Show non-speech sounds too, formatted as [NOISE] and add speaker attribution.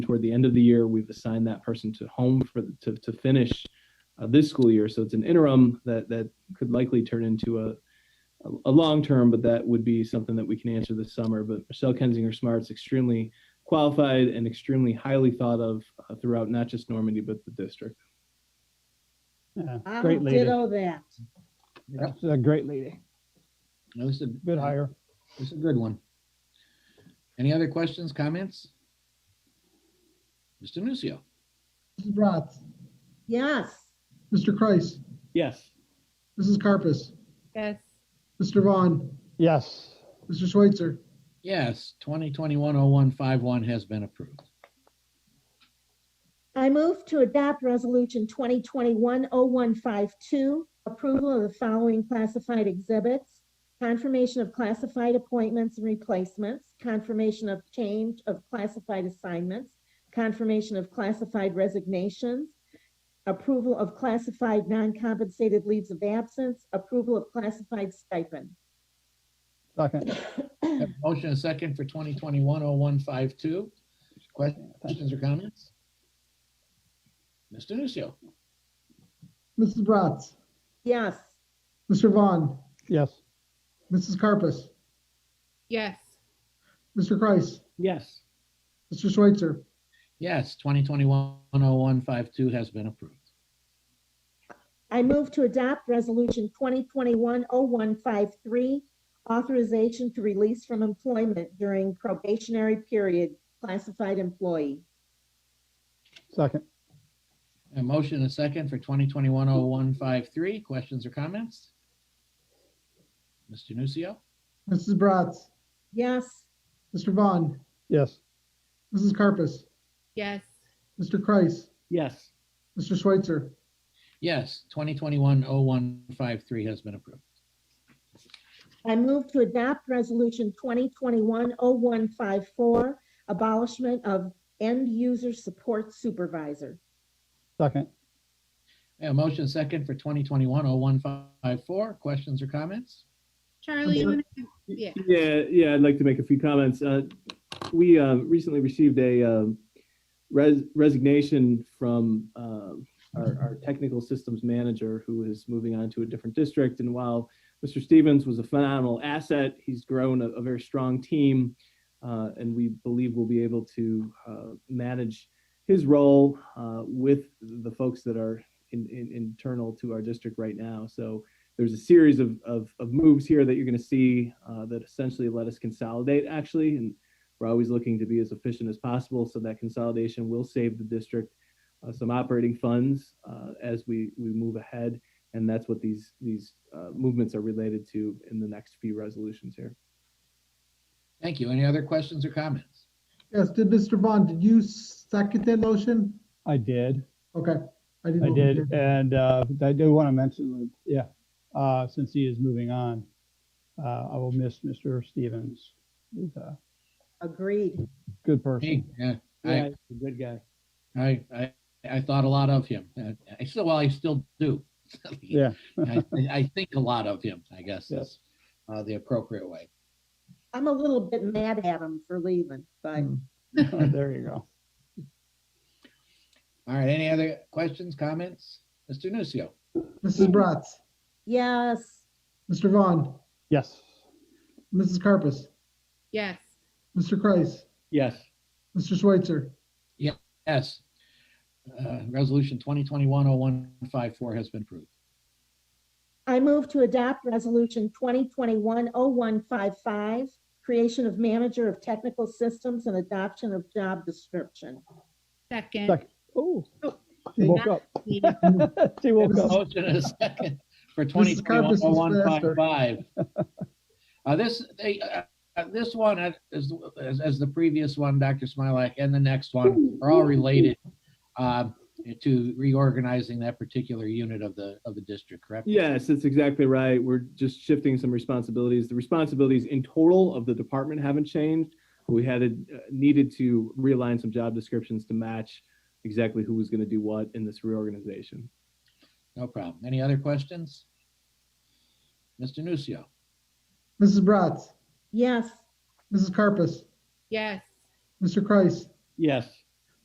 Speaker 1: toward the end of the year, we've assigned that person to home for to, to finish uh, this school year. So it's an interim that that could likely turn into a a, a long term, but that would be something that we can answer this summer. But Michelle Kensinger Smart's extremely qualified and extremely highly thought of uh, throughout not just Normandy but the district.
Speaker 2: Yeah,
Speaker 3: I'll
Speaker 2: Great lady.
Speaker 3: ditto that.
Speaker 2: That's a great lady.
Speaker 4: That was a
Speaker 2: Bit higher.
Speaker 4: It's a good one. Any other questions, comments? Mr. Nucio.
Speaker 5: Mrs. Bratz,
Speaker 3: Yes,
Speaker 5: Mr. Kreis,
Speaker 1: Yes.
Speaker 5: Mrs. Carpus,
Speaker 6: Yes,
Speaker 5: Mr. Vaughn,
Speaker 2: Yes.
Speaker 5: Mr. Schweitzer,
Speaker 4: Yes, 2021-0151 has been approved.
Speaker 3: I move to adopt Resolution 2021-0152, approval of the following classified exhibits, confirmation of classified appointments and replacements, confirmation of change of classified assignments, confirmation of classified resignations, approval of classified non-compensated leaves of absence, approval of classified stipend.
Speaker 2: Second.
Speaker 4: Have a Motion and a second for 2021-0152. Questions or comments? Mr. Nucio.
Speaker 5: Mrs. Bratz,
Speaker 3: Yes,
Speaker 5: Mr. Vaughn,
Speaker 2: Yes.
Speaker 5: Mrs. Carpus,
Speaker 6: yes,
Speaker 5: Mr. Kreis,
Speaker 1: Yes.
Speaker 5: Mr. Schweitzer,
Speaker 4: Yes, 2021-0152 has been approved.
Speaker 3: I move to adopt Resolution 2021-0153, authorization to release from employment during probationary period, classified employee.
Speaker 2: Second.
Speaker 4: A motion and a second for 2021-0153. Questions or comments? Mr. Nucio.
Speaker 5: Mrs. Bratz,
Speaker 3: Yes,
Speaker 5: Mr. Vaughn,
Speaker 2: Yes.
Speaker 5: Mrs. Carpus,
Speaker 6: yes,
Speaker 5: Mr. Kreis,
Speaker 1: Yes.
Speaker 5: Mr. Schweitzer,
Speaker 4: Yes, 2021-0153 has been approved.
Speaker 3: I move to adopt Resolution 2021-0154, abolishment of end-user support supervisor.
Speaker 2: Second.
Speaker 4: A motion second for 2021-0154. Questions or comments?
Speaker 6: Charlie, you wanna, do- yeah,
Speaker 1: Yeah, yeah, I'd like to make a few comments. Uh, We uh, recently received a um, res- resignation from um, our our technical systems manager who is moving on to a different district. And while Mr. Stevens was a phenomenal asset, he's grown a a very strong team. uh, And we believe we'll be able to uh, manage his role uh, with the folks that are in- in- internal to our district right now. So there's a series of, of, of moves here that you're going to see uh, that essentially let us consolidate actually and we're always looking to be as efficient as possible so that consolidation will save the district uh, some operating funds uh, as we, we move ahead and that's what these these uh, movements are related to in the next few resolutions here
Speaker 4: Thank you. Any other questions or comments?
Speaker 5: yes, did Mr. Vaughn, did you second that motion?
Speaker 2: I did.
Speaker 5: Okay.
Speaker 2: I
Speaker 5: know if you
Speaker 2: did. And uh, I do want to mention, yeah, uh, since he is moving on, uh, I will miss Mr. Stevens. He's a
Speaker 3: Agreed.
Speaker 2: good person.
Speaker 4: Hey, yeah,
Speaker 2: Yeah,
Speaker 4: I,
Speaker 2: he's a good guy.
Speaker 4: I, I, I thought a lot of him. Uh, I still, well, I still do. [LAUGHS]
Speaker 2: Yeah.
Speaker 4: I, I think a lot of him, I guess, is uh, the appropriate way.
Speaker 3: I'm a little bit mad at him for leaving, but
Speaker 5: Hmm.
Speaker 2: There you go.
Speaker 4: All right. Any other questions, comments? Mr. Nucio.
Speaker 5: Mrs. Bratz,
Speaker 3: yes,
Speaker 5: Mr. Vaughn,
Speaker 2: Yes.
Speaker 5: Mrs. Carpus,
Speaker 6: yes,
Speaker 5: Mr. Kreis,
Speaker 1: yes
Speaker 5: Mr. Schweitzer,
Speaker 4: Yes. Uh, resolution 2021-0154 has been approved.
Speaker 3: I move to adopt Resolution 2021-0155, creation of manager of technical systems and adoption of job description.
Speaker 6: second.
Speaker 2: Second. Oh,
Speaker 6: Oh,
Speaker 2: she woke up.
Speaker 6: yeah,
Speaker 2: She woke
Speaker 5: Mrs.
Speaker 1: Oh.
Speaker 2: up. [LAUGHS]
Speaker 4: Motion and a second for twenty
Speaker 5: Mrs.
Speaker 4: twenty-one
Speaker 5: Carpus is
Speaker 4: oh one five five. Uh, this, they, uh, uh, this one, uh, as, as, as the previous one, Dr. Smilak, and the next one are all related uh, to reorganizing that particular unit of the, of the district, correct?
Speaker 1: Yes, that's exactly right. We're just shifting some responsibilities. The responsibilities in total of the department haven't changed. We had uh, needed to realign some job descriptions to match exactly who was going to do what in this reorganization.
Speaker 4: No problem. Any other questions? Mr. Nucio.
Speaker 5: Mrs. Bratz,
Speaker 3: Yes,
Speaker 5: Mrs. Carpus,
Speaker 6: Yes,
Speaker 5: Mr. Kreis,
Speaker 1: Yes.